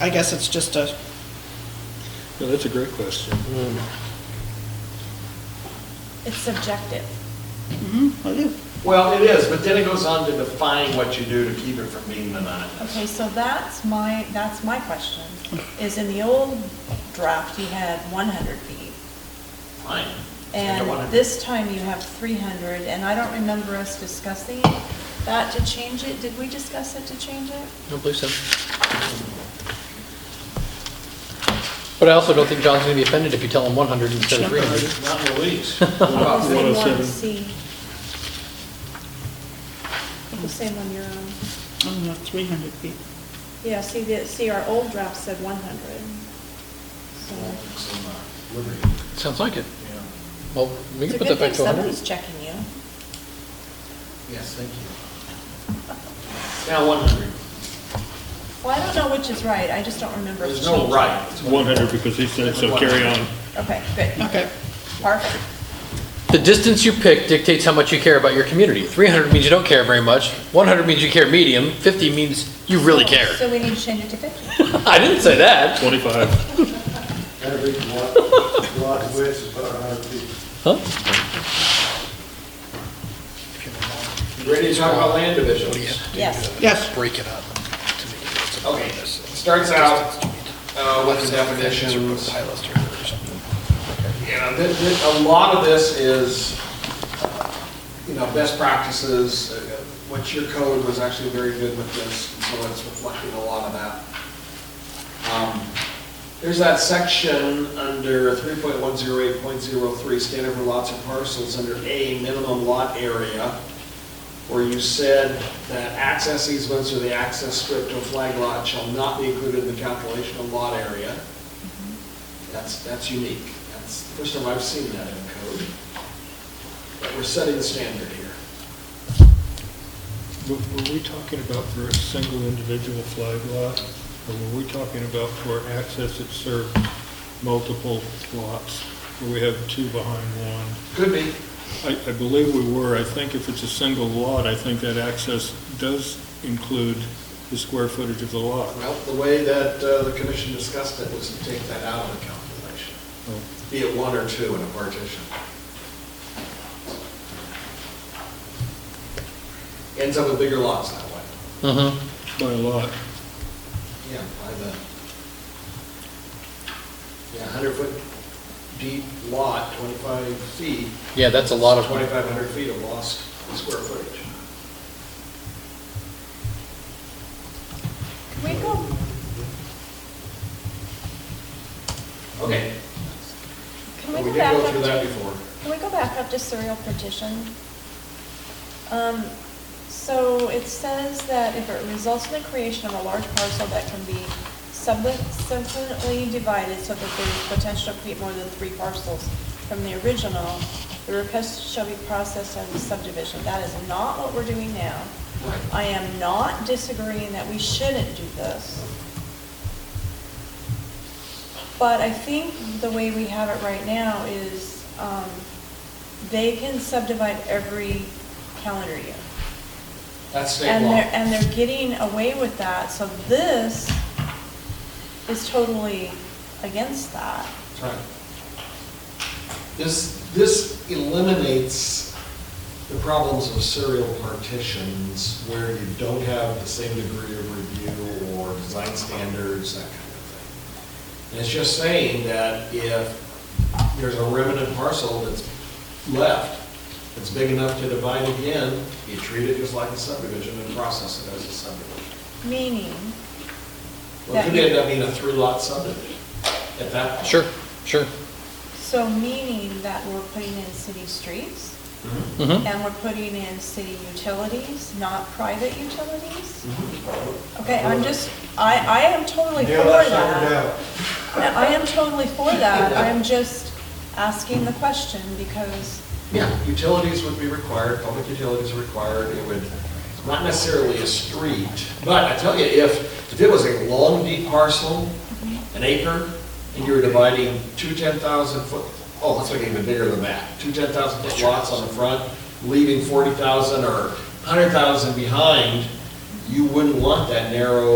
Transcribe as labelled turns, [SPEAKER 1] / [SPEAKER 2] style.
[SPEAKER 1] I guess it's just a,
[SPEAKER 2] Yeah, that's a great question.
[SPEAKER 3] It's subjective.
[SPEAKER 1] I do.
[SPEAKER 4] Well, it is, but then it goes on to define what you do to keep it from being monotonous.
[SPEAKER 3] Okay, so that's my, that's my question, is in the old draft, you had one hundred feet.
[SPEAKER 4] Fine. Take a one.
[SPEAKER 3] And this time you have three hundred, and I don't remember us discussing that to change it. Did we discuss it to change it?
[SPEAKER 5] I don't believe so. But I also don't think John's gonna be offended if you tell him one hundred instead of three hundred.
[SPEAKER 4] Not released.
[SPEAKER 3] Because they want to
[SPEAKER 2] 107.
[SPEAKER 3] see. The same on your own.
[SPEAKER 1] I don't know, 300 feet.
[SPEAKER 3] Yeah, see, the, see, our old draft said one hundred. So
[SPEAKER 5] Sounds like it. Well, we can put that back
[SPEAKER 3] It's a good thing
[SPEAKER 5] to hundred.
[SPEAKER 3] somebody's checking you.
[SPEAKER 4] Yes, thank you. Now, 100.
[SPEAKER 3] Well, I don't know which is right, I just don't remember. if
[SPEAKER 4] There's
[SPEAKER 3] it's
[SPEAKER 4] no
[SPEAKER 3] changed.
[SPEAKER 4] right.
[SPEAKER 2] It's 100 because he said so, carry on.
[SPEAKER 3] Okay, good,
[SPEAKER 1] Okay.
[SPEAKER 3] perfect.
[SPEAKER 5] The distance you pick dictates how much you care about your community. Three hundred means you don't care very much, one hundred means you care medium, fifty means you really care.
[SPEAKER 3] So we need to change it to fifty.
[SPEAKER 5] I didn't say that.
[SPEAKER 2] 25.
[SPEAKER 6] Every lot, lot width is about 100 feet.
[SPEAKER 5] Huh?
[SPEAKER 4] You Ready to talk about land divisions?
[SPEAKER 3] Yes,
[SPEAKER 1] Yes,
[SPEAKER 7] break it up to make it so
[SPEAKER 4] Okay, it starts out uh, with the
[SPEAKER 7] it's
[SPEAKER 4] definitions.
[SPEAKER 7] a high luster or something.
[SPEAKER 4] You know, uh, th- th- a lot of this is, uh, you know, best practices, uh, what your code was actually very good with this, so it's reflecting a lot of that. Um, There's that section under 3.108.03, standard for lots and parcels, under A, minimum lot area, where you said that access easements or the access strip to a flag lot shall not be included in the calculation of lot area. That's, that's unique. That's the first time I've seen that in code. But we're setting the standard here.
[SPEAKER 2] Were were we talking about for a single individual flag lot? Or were we talking about for access that serves multiple lots? Where we have two behind one?
[SPEAKER 4] Could be.
[SPEAKER 2] I, I believe we were. I think if it's a single lot, I think that access does include the square footage of the lot.
[SPEAKER 4] Well, the way that uh, the commission discussed it was to take that out of the calculation,
[SPEAKER 2] Oh,
[SPEAKER 4] be it one or two in a partition. Ends up with bigger lots that way.
[SPEAKER 5] Mm-hmm.
[SPEAKER 2] By a lot.
[SPEAKER 4] Yeah, by the, yeah, 100-foot deep lot, 25 feet,
[SPEAKER 5] Yeah, that's a lot of,
[SPEAKER 4] 2,500 feet of lost square footage.
[SPEAKER 3] can we go,
[SPEAKER 4] Okay.
[SPEAKER 3] can
[SPEAKER 4] Well,
[SPEAKER 3] we go
[SPEAKER 4] We did
[SPEAKER 3] back
[SPEAKER 4] go
[SPEAKER 3] up
[SPEAKER 4] through that
[SPEAKER 3] to,
[SPEAKER 4] before.
[SPEAKER 3] can we go back up to serial partition? Um, so it says that if it results in the creation of a large parcel that can be subsequently divided so that there's potential to create more than three parcels from the original, the request shall be processed under subdivision. That is not what we're doing now.
[SPEAKER 4] Right.
[SPEAKER 3] I am not disagreeing that we shouldn't do this. But I think the way we have it right now is, um, they can subdivide every calendar year.
[SPEAKER 4] That's state
[SPEAKER 3] And they're,
[SPEAKER 4] law.
[SPEAKER 3] and they're getting away with that, so this is totally against that.
[SPEAKER 4] That's right. This, this eliminates the problems of serial partitions where you don't have the same degree of review or design standards, that kind of thing. And it's just saying that if there's a remnant parcel that's left, that's big enough to divide again, you treat it just like a subdivision and process it as a subdivision.
[SPEAKER 3] Meaning,
[SPEAKER 4] Well, it could
[SPEAKER 3] That-
[SPEAKER 4] end up being a three-lot subdivision at that point.
[SPEAKER 5] sure, sure.
[SPEAKER 3] so meaning that we're putting in city streets,
[SPEAKER 5] Mm-hmm.
[SPEAKER 3] and we're putting in city utilities, not private utilities? Okay,
[SPEAKER 6] Absolutely.
[SPEAKER 3] I'm just, I, I am totally for
[SPEAKER 6] Mm-hmm. Yeah, that's figured
[SPEAKER 3] that.
[SPEAKER 6] out.
[SPEAKER 3] I am totally for that, I'm just asking the question because,
[SPEAKER 4] Yeah, utilities would be required, public utilities are required, it would, not necessarily a street, but I tell you, if, if it was a long, deep parcel, an acre, and you were dividing two 10,000 foot, oh, let's make it even bigger than that, two 10,000 foot lots on the front, leaving 40,000 or 100,000 behind, you wouldn't want that narrow